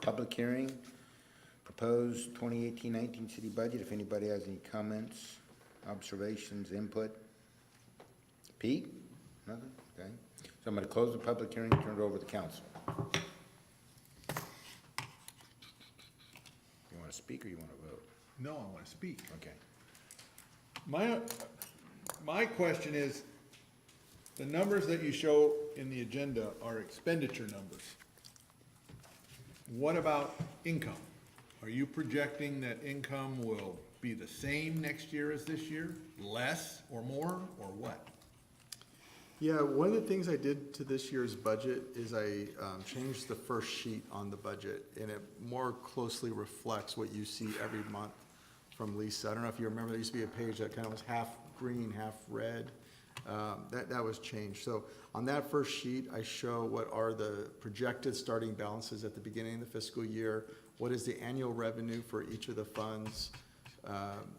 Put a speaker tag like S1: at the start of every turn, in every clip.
S1: public hearing, proposed 2018-19 city budget. If anybody has any comments, observations, input? Pete? Nothing? Okay. So I'm going to close the public hearing, and turn it over to the council. You want to speak or you want to vote?
S2: No, I want to speak.
S1: Okay.
S2: My, my question is, the numbers that you show in the agenda are expenditure numbers. What about income? Are you projecting that income will be the same next year as this year? Less or more, or what?
S3: Yeah, one of the things I did to this year's budget is I um, changed the first sheet on the budget, and it more closely reflects what you see every month from Lisa. I don't know if you remember, there used to be a page that kind of was half green, half red. Um, That, that was changed. So on that first sheet, I show what are the projected starting balances at the beginning of the fiscal year, what is the annual revenue for each of the funds, um,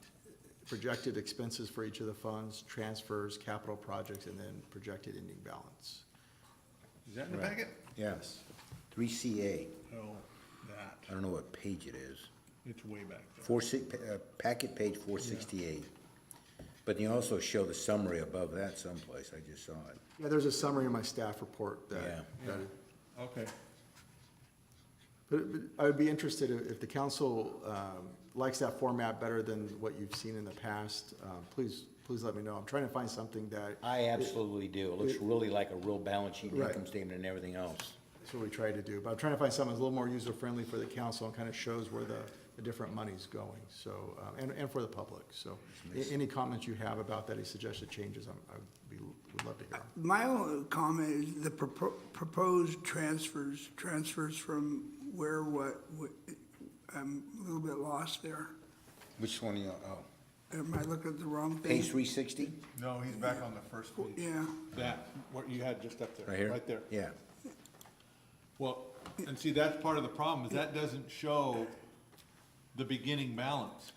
S3: projected expenses for each of the funds, transfers, capital projects, and then projected ending balance.
S2: Is that in the packet?
S1: Yes. 3CA.
S2: Oh,
S1: I
S2: that,
S1: don't know what page it is.
S2: it's way back there.
S1: Four six, uh, packet page four sixty-eight. But you also show the summary above that someplace, I just saw it.
S3: Yeah, there's a summary in my staff report that,
S1: Yeah.
S3: that,
S2: Okay,
S3: but but I would be interested if, if the council, um, likes that format better than what you've seen in the past, um, please, please let me know. I'm trying to find something that,
S1: I absolutely do. It looks really like a real balance sheet,
S3: Right.
S1: income statement and everything else.
S3: that's what we try to do, but I'm trying to find something that's a little more user-friendly for the council and kind of shows where the, the different money's going, so, um, and, and for the public, so. a- Any comments you have about that, any suggested changes, I'm, I would be, would love to hear. 'em.
S4: My only comment is the propo- proposed transfers, transfers from where, what, what- I'm a little bit lost there.
S1: Which one are you, oh,
S4: Am I looking at the wrong
S1: page
S4: page?
S1: three sixty?
S2: no, he's back on the first page.
S4: Yeah,
S2: That, what you had just up there.
S1: Right here?
S2: Right there.
S1: Yeah.
S2: Well, and see, that's part of the problem, is that doesn't show the beginning balance.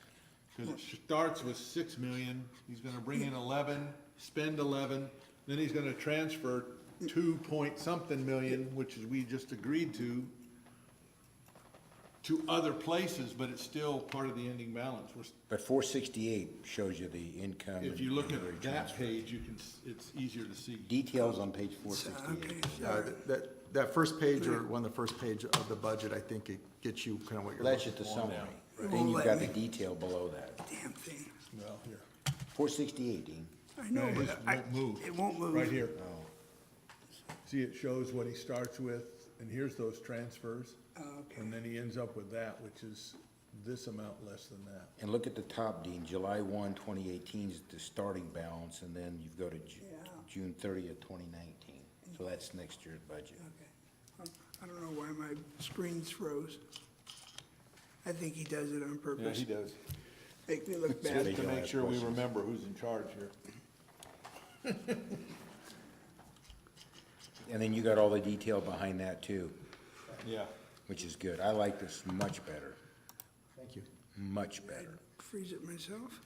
S2: Cause it starts with six million, he's gonna bring in eleven, spend eleven, then he's gonna transfer two point something million, which is we just agreed to, to other places, but it's still part of the ending balance. We're, s-
S1: But four sixty-eight shows you the income.
S2: if
S1: and
S2: you look
S1: every
S2: at that
S1: transfer.
S2: page, you can, s- it's easier to see.
S1: Details on page four
S4: okay,
S1: sixty-eight.
S3: Uh,
S4: sorry.
S3: That, that first page or one of the first page of the budget, I think it gets you kind of what you're
S1: That's
S3: looking
S1: just the
S3: for.
S1: summary.
S4: It
S1: Then
S4: won't
S1: you've
S4: let
S1: got the
S4: me.
S1: detail below that.
S4: damn thing.
S2: Well, here.
S1: Four sixty-eight, Dean.
S4: I
S2: No,
S4: know,
S2: it
S4: but
S2: just
S4: I,
S2: won't move.
S4: it won't move.
S2: Right here. See, it shows what he starts with, and here's those transfers.
S4: Okay.
S2: And then he ends up with that, which is this amount less than that.
S1: And look at the top, Dean, July 1, 2018 is the starting balance, and then you've got to Ju-
S4: Yeah.
S1: June 30th, 2019. So that's next year's budget.
S4: Okay. I don't know why my screens froze. I think he does it on purpose.
S2: does.
S4: Make me look
S1: Just
S4: bad.
S1: to make sure we
S2: remember who's in charge here.
S1: And then you got all the detail behind that too,
S2: Yeah.
S1: which is good. I like this much better,
S3: Thank you.
S1: much better.
S4: Freeze it myself.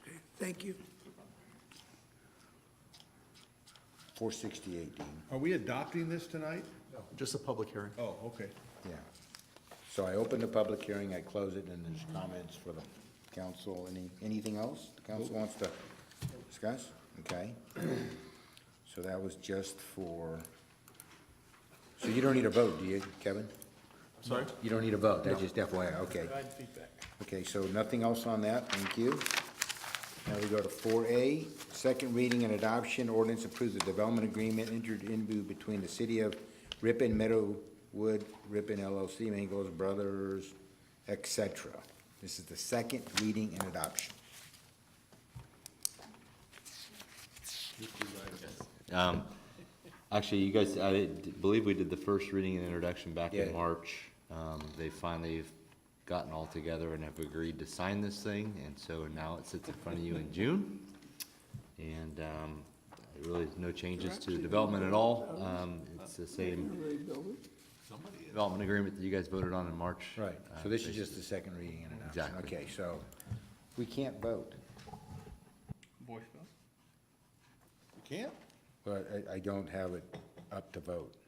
S4: Okay, thank you.
S1: 468, Dean,
S2: Are we adopting this tonight?
S3: Just a public hearing.
S2: Oh, okay.
S1: yeah. So I open the public hearing, I close it, and there's comments for the council. Any, anything else the council wants to discuss? Okay. So that was just for, so you don't need a vote, do you, Kevin?
S3: Sorry?
S1: You don't need a vote, that's just FYI, okay. Okay, so nothing else on that, thank you. Now we go to four A, second reading and adoption, ordinance approves the development agreement entered into between the city of Ripon Meadowwood, Ripon LLC, Mangos Brothers, et cetera. This is the second reading and adoption.
S5: Um, Actually, you guys, I d- believe we did the first reading and introduction back
S1: Yeah.
S5: in March. Um, They finally have gotten all together and have agreed to sign this thing, and so now it sits in front of you in June. And um, really, no changes to the development at all. Um, It's the same development agreement that you guys voted on in March.
S1: Right, so
S5: Uh,
S1: this is just the second reading and adoption.
S5: Exactly.
S1: Okay, so we can't vote,
S2: Voice vote? You can't?
S1: but I, I don't have it up to vote.